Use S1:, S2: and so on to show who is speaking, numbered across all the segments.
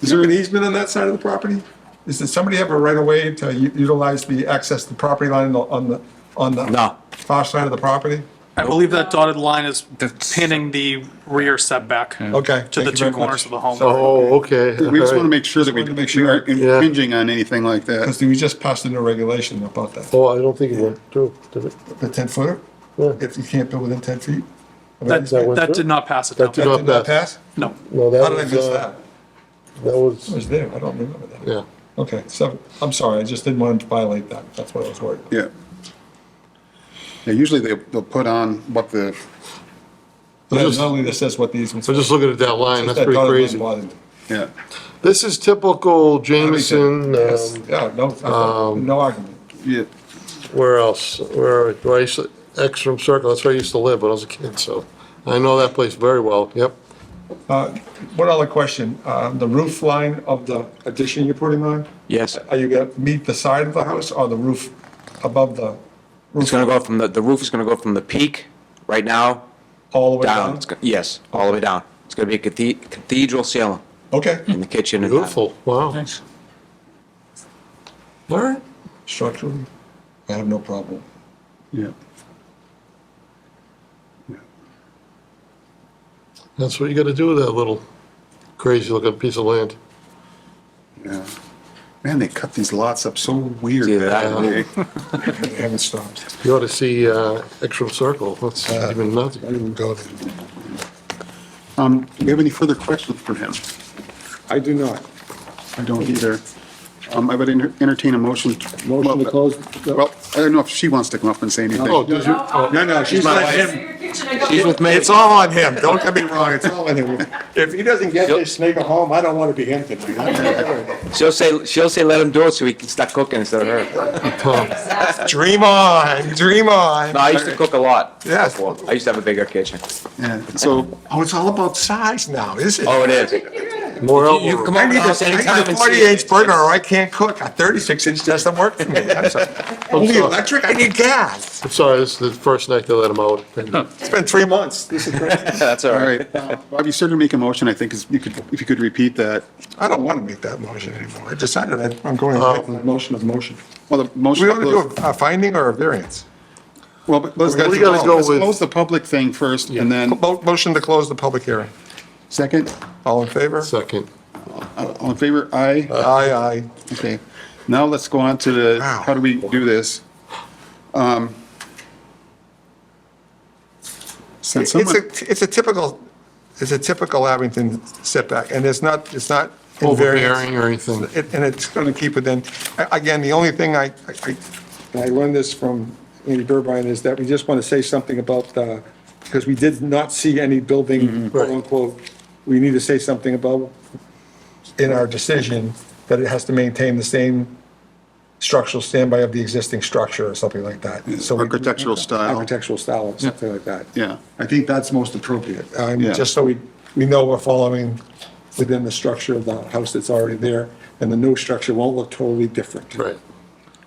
S1: Is there an easement on that side of the property? Is, does somebody have a right of way to u- utilize the access to the property line on the, on the?
S2: No.
S1: Far side of the property?
S3: I believe that dotted line is
S2: That's-
S3: pinning the rear setback.
S1: Okay.
S3: To the
S1: thank you
S3: two
S1: very
S3: corners of
S1: much.
S3: the home.
S4: Oh, okay.
S5: We just want to
S4: alright.
S5: make sure that we
S1: Just wanted to make
S5: we
S1: sure.
S5: aren't impinging on anything like that.
S1: Because we just passed a new regulation about that.
S4: Oh, I don't think it went through, did it?
S1: The ten footer,
S4: Yeah.
S1: if you can't build within ten feet? of an
S3: That,
S1: easement?
S4: went
S3: that
S4: through?
S3: did not pass it
S4: That did
S3: down.
S4: not-
S1: Did not pass?
S3: No.
S4: No, that
S1: How did I
S4: was,
S1: miss
S4: uh,
S1: that?
S4: that
S1: I
S4: was,
S1: was there, I don't remember that.
S4: yeah.
S1: Okay, so, I'm sorry, I just didn't want to violate that, that's what I was worried. about.
S5: Yeah. Yeah, usually they, they'll put on what the,
S1: But
S4: just-
S1: not only this says what the easements.
S4: I'm just looking at that line, that's
S1: That
S4: pretty
S1: dotted line
S4: crazy.
S1: bothered me.
S5: yeah.
S4: This is typical Jameson,
S1: Yes,
S4: um,
S1: Yeah, no, I- no argument.
S5: Yeah.
S4: where else? Where, where I used to, Ekstrom Circle, that's where I used to live when I was a kid, so I know that place very well, yep.
S1: Uh, One other question, uh, the roof line of the addition you're putting on,
S2: Yes,
S1: are you gonna meet the side of the house or the roof above the
S2: it's
S1: roof
S2: gonna go from the, the roof is gonna go from the peak right now
S1: all the way
S2: down.
S1: down?
S2: It's go- Yes, all the way down. It's gonna be a cathe- cathedral ceiling
S1: Okay,
S2: in the kitchen. and that.
S4: Beautiful, wow. All right.
S1: structurally, I have no problem.
S5: Yeah.
S4: That's what you gotta do with that little crazy looking piece of land.
S5: Yeah. Man, they cut these lots up so weird.
S2: See,
S5: back
S2: that-
S5: in the day.
S1: I haven't stopped.
S4: You ought to see, uh, Ekstrom Circle, that's
S5: Uh.
S4: even
S1: I
S4: nothing.
S1: didn't go there.
S5: Um, do you have any further questions for him?
S1: I do not.
S5: I don't either. Um, I would enter- entertain a motion. to-
S6: Motion to close.
S5: Well, I don't know if she wants to come up and say anything.
S4: Oh, does your, oh,
S1: No, no, she's
S5: my
S1: not him.
S2: She's with me.
S1: It's all on him, don't get me wrong, it's all on him. If he doesn't get this snake a home, I don't want to be him tonight.
S2: She'll say, she'll say, let him do it so he can start cooking instead of her.
S1: Dream on, dream on.
S2: No, I used to cook a lot.
S1: Yes.
S2: Well, I used to have a bigger kitchen.
S5: Yeah, so,
S1: Oh, it's all about size now, is it?
S2: Oh, it is. You
S4: more
S2: you can
S4: elbow
S2: come
S4: room.
S1: I
S2: over
S1: need
S2: to
S1: a,
S2: us
S1: I need
S2: anytime
S1: a
S2: and
S1: forty
S2: see.
S1: inch burner or I can't cook. A thirty six inch doesn't work for me. I'm sorry. Only electric, I need gas.
S4: I'm sorry, this is the first night they let him out.
S1: It's been three months. This is crazy.
S2: That's all
S5: all
S2: right.
S5: right. Uh, Bob, you started to make a motion, I think, is, you could, if you could repeat that.
S1: I don't want to make that motion anymore. I decided that I'm going to make
S4: Oh.
S1: the motion of motion.
S5: Well, the
S1: Do
S5: motion.
S1: we want to do a a finding or a variance?
S5: Well, but let's,
S4: We
S5: let's
S4: gotta go with-
S5: close the public thing first and then,
S1: Mo- Motion to close the public hearing.
S5: second, Uh,
S1: All in favor?
S4: Second.
S5: all in favor? Aye?
S4: uh,
S1: Aye, aye.
S5: Okay, now let's go on to the,
S1: Wow.
S5: how do we do this? Um,
S1: It's
S5: Since
S1: a,
S5: someone,
S1: it's a typical, it's a typical Abington setback and it's not, it's not. in variance.
S4: Overbearing or anything.
S1: It- And it's going to keep it in. A- Again, the only thing I, I-
S6: And I learned this from Andy Burbine, is that we just want to say something about, uh, because we did not see any
S5: Mm-hmm.
S6: building, quote unquote, we need to say something about,
S1: in our decision, that it has to maintain the same structural standby of the existing structure or something like that. So we-
S5: architectural style,
S6: architectural style or something like that.
S5: yeah.
S1: I think that's most appropriate, um,
S5: Yeah.
S1: just so we, we know we're following,
S6: Within the structure of the house that's already there, and the new structure won't look totally different.
S4: Right.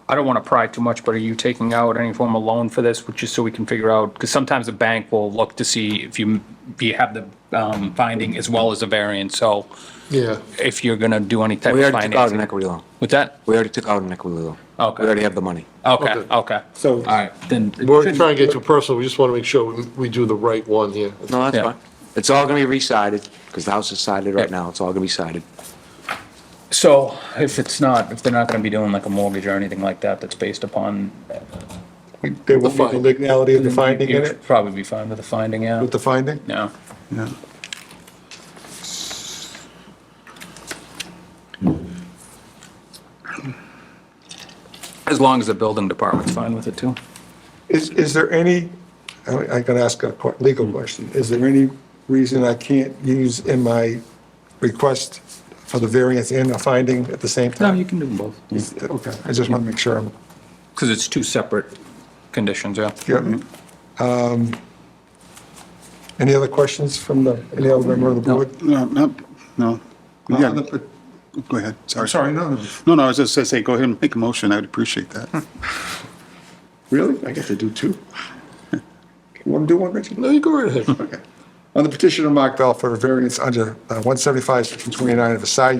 S7: I don't want to pry too much, but are you taking out any form of loan for this, which is so we can figure out, because sometimes a bank will look to see if you, if you have the um, finding as well as a variance, so
S4: Yeah,
S7: if you're going to do any type
S2: We
S7: of
S2: already took out an
S7: financing.
S2: equity loan.
S7: With that?
S2: We already took out an equity loan.
S7: Okay.
S2: We already have the money.
S7: Okay,
S4: Okay.
S7: okay.
S6: So-
S7: All right, then.
S4: we're trying to get too personal, we just want to make sure we- we do the right one here.
S2: No, that's
S7: Yeah.
S2: fine. It's all gonna be resided, because the house is sided right
S7: Yeah.
S2: now. It's all gonna be sided.
S7: So if it's not, if they're not going to be doing like a mortgage or anything like that, that's based upon.
S1: they will need the legality of the finding in it,
S7: You'd Probably be fine with the finding, yeah.
S1: with the finding.
S7: Mm-hmm. Yeah.
S5: yeah.
S7: As long as the building department's fine with it too.
S1: Is, is there any, I- I'm going to ask a que- legal question, is there any reason I can't use in my request for the variance and the finding at the same
S7: No,
S1: time?
S7: you can do them both.
S1: Is- uh, Okay, I just want to make sure I'm
S7: Because it's two separate conditions, yeah.
S1: Yeah. Um, Any other questions from the, any other member of the board?
S5: No, no, no.
S1: Uh,
S5: Yeah,
S1: the-
S5: go ahead, sorry.
S1: Sorry, no, no.
S5: No, no, I was just gonna say, go ahead and make a motion, I would appreciate that.
S1: Really? I get to do two? You want to do one, Richard?
S4: No, you go right ahead.
S1: Okay. On the petition of Mark Bell for a variance under uh, 175, section 29 of the side